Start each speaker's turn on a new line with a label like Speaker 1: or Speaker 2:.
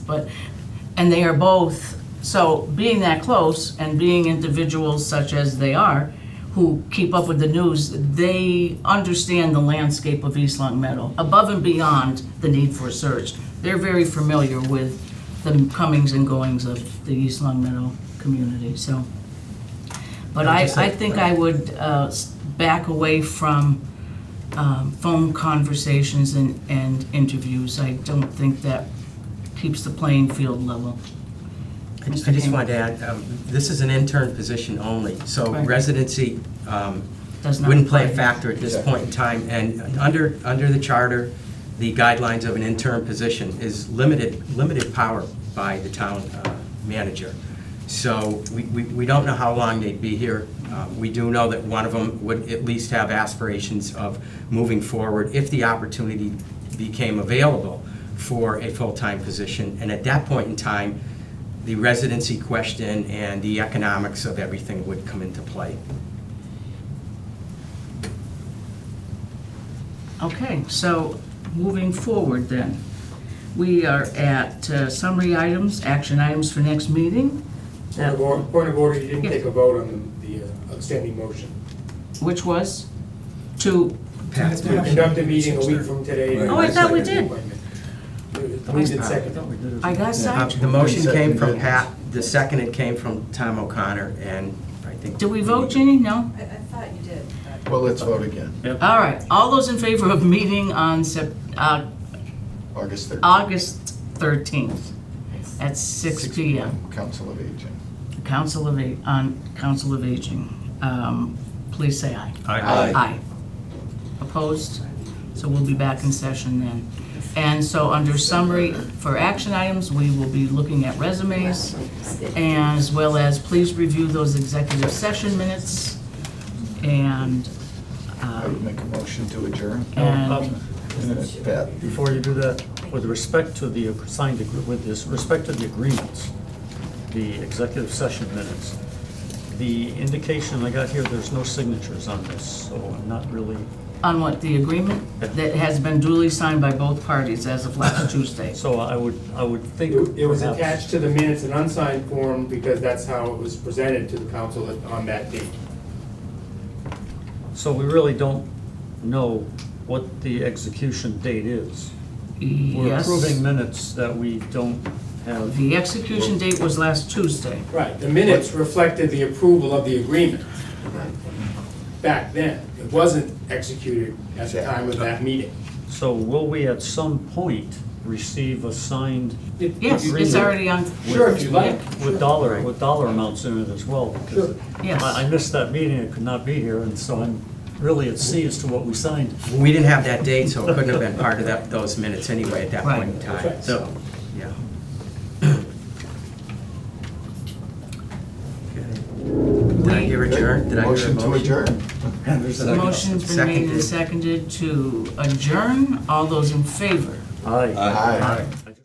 Speaker 1: but, and they are both, so being that close and being individuals such as they are, who keep up with the news, they understand the landscape of East Long Meadow above and beyond the need for a search. They're very familiar with the comings and goings of the East Long Meadow community, so. But I, I think I would uh, s- back away from um, phone conversations and, and interviews. I don't think that keeps the playing field level.
Speaker 2: I ju- I
Speaker 1: Mr.
Speaker 2: just
Speaker 1: King.
Speaker 2: wanted to add, um, this is an intern position only, so
Speaker 1: Right.
Speaker 2: residency um,
Speaker 1: Does not
Speaker 2: wouldn't play a
Speaker 1: apply.
Speaker 2: factor at this point in time. And under, under the charter, the guidelines of an intern position is limited, limited power by the town uh, manager. So we, we we don't know how long they'd be here. Uh, We do know that one of them would at least have aspirations of moving forward if the opportunity became available for a full-time position. And at that point in time, the residency question and the economics of everything would come into play.
Speaker 1: Okay, so moving forward then, we are at uh, summary items, action items for next meeting,
Speaker 3: Point of order- point of order, you didn't
Speaker 1: Yes.
Speaker 3: take a vote on the uh, outstanding motion.
Speaker 1: which was to,
Speaker 2: Pass
Speaker 3: To conduct a meeting a week from today.
Speaker 1: Oh, I thought we did.
Speaker 3: Moved in second.
Speaker 1: I got
Speaker 2: Uh,
Speaker 1: sidetracked.
Speaker 2: The motion came from Pat, the second it came from Tom O'Connor, and I think.
Speaker 1: Did we vote, Ginny? No?
Speaker 4: I, I thought you did, but.
Speaker 5: Well, let's vote again,
Speaker 1: All right, all those in favor of meeting on Sep, uh,
Speaker 5: August 13th,
Speaker 1: August 13th at six PM.
Speaker 5: Council of Aging.
Speaker 1: Council of, A- on Council of Aging. Um, Please say aye.
Speaker 5: Aye.
Speaker 1: Aye. Opposed? So we'll be back in session then. And so under summary for action items, we will be looking at resumes as well as please review those executive session minutes and,
Speaker 5: I would
Speaker 1: um,
Speaker 5: make a motion to adjourn.
Speaker 1: and,
Speaker 5: Pat,
Speaker 6: Before you do that, with respect to the signed, agr- with this, respect to the agreements, the executive session minutes, the indication I got here, there's no signatures on this, so I'm not really,
Speaker 1: on what, the agreement that has been duly signed by both parties as of last Tuesday.
Speaker 6: so I would, I would think.
Speaker 3: It it was
Speaker 6: perhaps-
Speaker 3: attached to the minutes in unsigned form because that's how it was presented to the council at- on that date.
Speaker 6: So we really don't know what the execution date is. We're
Speaker 1: Yes.
Speaker 6: approving minutes that we don't have.
Speaker 1: The execution date was last Tuesday.
Speaker 3: Right, the minutes reflected the approval of the agreement back then. It wasn't executed at the time of that meeting.
Speaker 6: So will we at some point receive a signed
Speaker 3: It-
Speaker 1: Yes, it's already on,
Speaker 3: Sure, if you'd like.
Speaker 6: With dollar, with dollar amounts in it as well, because
Speaker 1: Yes.
Speaker 6: I I missed that meeting, I could not be here, and so I'm really at sea as to what we signed.
Speaker 2: We didn't have that date, so it couldn't have been part of that, those minutes anyway at that point in time,
Speaker 3: Right.
Speaker 2: so, yeah. Did I hear adjourn? Did I hear a
Speaker 5: motion to adjourn.
Speaker 1: the motion's been made and seconded to adjourn. All those in favor?
Speaker 6: Aye.
Speaker 5: Aye.
Speaker 1: Aye.